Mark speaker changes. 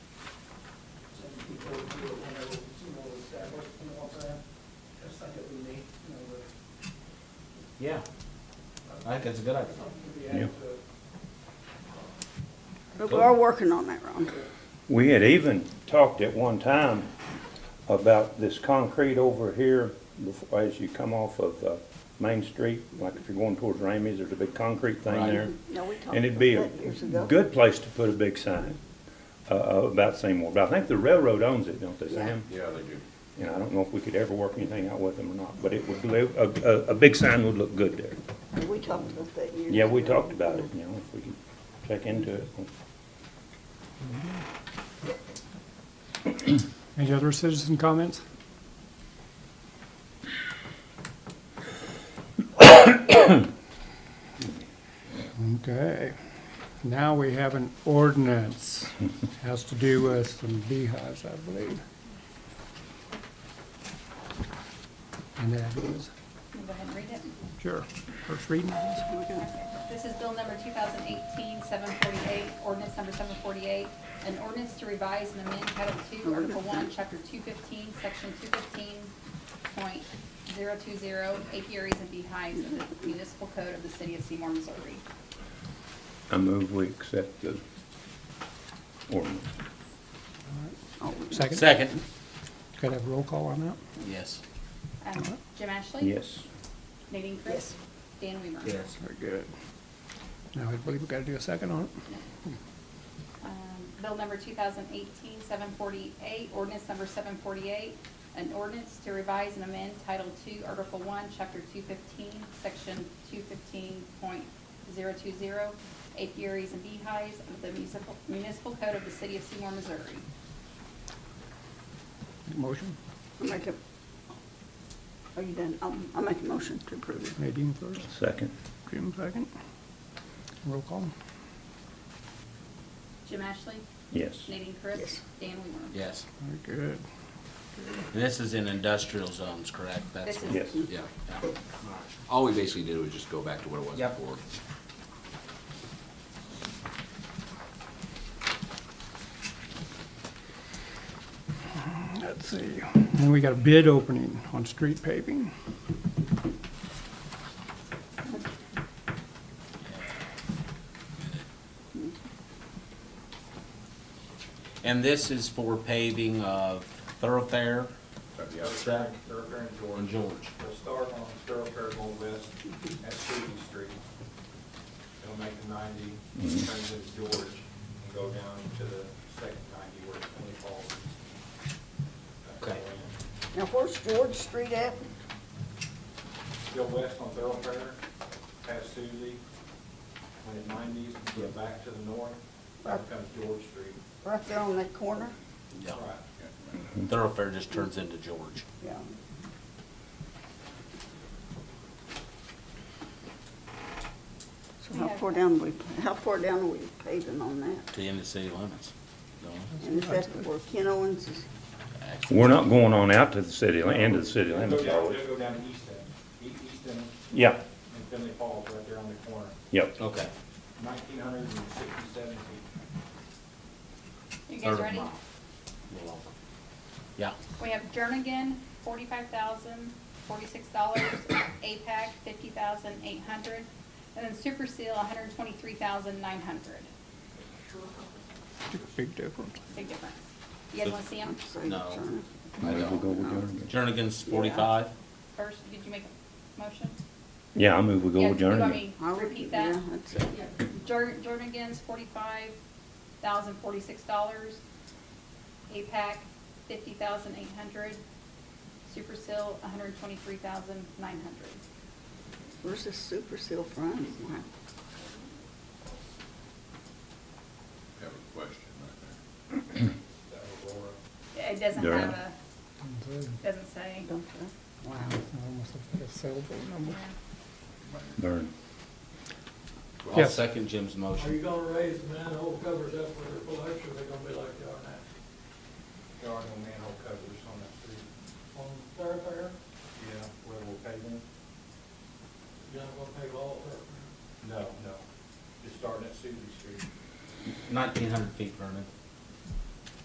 Speaker 1: Yeah. I think that's a good idea.
Speaker 2: But we are working on that, Ron.
Speaker 3: We had even talked at one time about this concrete over here, before- as you come off of uh, Main Street, like if you're going towards Ramey's, there's a big concrete thing
Speaker 1: Right.
Speaker 3: there.
Speaker 2: No, we talked
Speaker 3: And it'd be a
Speaker 2: about that years ago.
Speaker 3: good place to put a big sign uh, uh, about Seymour, but I think the railroad owns it, don't they, Sam?
Speaker 4: Yeah, they do.
Speaker 3: And I don't know if we could ever work anything out with them or not, but it would, live- a, a, a big sign would look good there.
Speaker 2: We talked about that years.
Speaker 3: Yeah, we
Speaker 2: ago.
Speaker 3: talked about it, you know, if we could check into it.
Speaker 5: Any other citizen comments? Okay, now we have an ordinance. Has to do with some beehives, I believe. And that is,
Speaker 6: Can you Go ahead and read it.
Speaker 5: sure, first reading.
Speaker 6: This is bill number 2018-748, ordinance number 748, an ordinance to revise and amend Title II, Article 1, Chapter 215, Section 215.020, apiaries and beehives of the municipal code of the city of Seymour, Missouri.
Speaker 3: I move we accept the ordinance.
Speaker 5: Second,
Speaker 7: Second.
Speaker 5: gotta have roll call on that?
Speaker 7: Yes.
Speaker 6: Um, Jim Ashley?
Speaker 3: Yes.
Speaker 6: Nadine Chris? Dan Weaver?
Speaker 1: Yes.
Speaker 5: Very good. Now, I believe we gotta do a second on it.
Speaker 6: Um, Bill number 2018-748, ordinance number seven forty-eight, an ordinance to revise and amend Title Two, Article One, Chapter two fifteen, Section two fifteen point zero two zero, apiaries and beehives of the municipal, municipal code of the city of Seymour, Missouri.
Speaker 5: Motion,
Speaker 2: I make a, are you done? I'll, I'll make a motion to approve it.
Speaker 5: Nadine first.
Speaker 3: Second.
Speaker 5: Jim second. Roll call.
Speaker 6: Jim Ashley?
Speaker 3: Yes.
Speaker 6: Nadine Chris?
Speaker 2: Yes.
Speaker 6: Dan Weaver?
Speaker 7: Yes.
Speaker 5: Very good.
Speaker 7: This is in industrial zones, correct? That's
Speaker 6: This
Speaker 7: what-
Speaker 6: is-
Speaker 3: Yes.
Speaker 4: Yeah. yeah. All we basically did was just go back to what it was
Speaker 1: Yep.
Speaker 4: before.
Speaker 5: Let's see. And we got a bid opening on street paving.
Speaker 7: And this is for paving of thoroughfare
Speaker 4: Yeah.
Speaker 1: Zach?
Speaker 8: Thoroughfare and
Speaker 7: on
Speaker 8: George.
Speaker 7: George.
Speaker 8: We'll start on Thoroughfare going west at Stevens Street. It'll make the ninety,
Speaker 7: Mm-hmm.
Speaker 8: turns into George, and go down to the second ninety where Twenty Falls. is. That's
Speaker 7: Okay.
Speaker 8: all in.
Speaker 2: Now, where's George Street at?
Speaker 8: Go west on Thoroughfare, past Suzie, when it nineties, go back to the north, back comes George Street.
Speaker 2: Right there on that corner?
Speaker 7: Yeah.
Speaker 8: Right.
Speaker 7: Thoroughfare just turns into George.
Speaker 2: Yeah. So how
Speaker 6: Yeah.
Speaker 2: far down we, how far down are we paving on that?
Speaker 7: to the end of city limits. don't it?
Speaker 2: And is that where Ken Owens is?
Speaker 7: Actually,
Speaker 3: We're not going on out to the city, li- end of the city
Speaker 8: It'll go
Speaker 3: limits, are
Speaker 8: down,
Speaker 3: we?
Speaker 8: it'll go down to Easton, E- Easton and
Speaker 3: Yeah,
Speaker 8: Finley Falls, right there on the corner,
Speaker 3: yep.
Speaker 7: Okay.
Speaker 8: nineteen hundred and sixty-seven feet.
Speaker 6: You
Speaker 7: Third
Speaker 6: guys
Speaker 7: of
Speaker 6: ready?
Speaker 7: mile. Little over. Yeah.
Speaker 6: We have Jernigan, forty-five thousand, forty-six dollars, APAC, fifty thousand, eight hundred, and then Super Seal, hundred and twenty-three thousand, nine hundred.
Speaker 5: Big difference.
Speaker 6: Big difference. You guys wanna see them?
Speaker 7: No.
Speaker 3: Maybe we'll go with Jernigan.
Speaker 7: Jernigan's forty-five.
Speaker 6: First, did you make a motion?
Speaker 3: Yeah, I move we go
Speaker 6: Yeah,
Speaker 3: with
Speaker 6: do you want
Speaker 3: Jernigan.
Speaker 6: me to Repeat that. Jor- Jernigan's forty-five thousand, forty-six dollars, APAC, fifty thousand, eight hundred, Super Seal, hundred and twenty-three thousand, nine hundred.
Speaker 2: Where's this super seal from? Wow.
Speaker 4: Have a question right
Speaker 8: That Aurora.
Speaker 6: It doesn't
Speaker 3: Darn.
Speaker 6: have a, doesn't say.
Speaker 2: Don't they? Wow.
Speaker 5: Almost like a cell phone number.
Speaker 6: Yeah.
Speaker 3: Vern.
Speaker 7: I'll
Speaker 5: Yes.
Speaker 7: second Jim's
Speaker 9: Are you
Speaker 7: motion.
Speaker 9: gonna raise the manhole covers up with their flush, or they gonna be like they are now?
Speaker 8: There are no manhole covers on that street.
Speaker 9: On thoroughfare,
Speaker 8: Yeah. Where we're paving?
Speaker 9: you're not gonna pave all thoroughfare.
Speaker 8: No, no. Just starting at Suzie Street.
Speaker 7: Nineteen hundred feet, Vernon.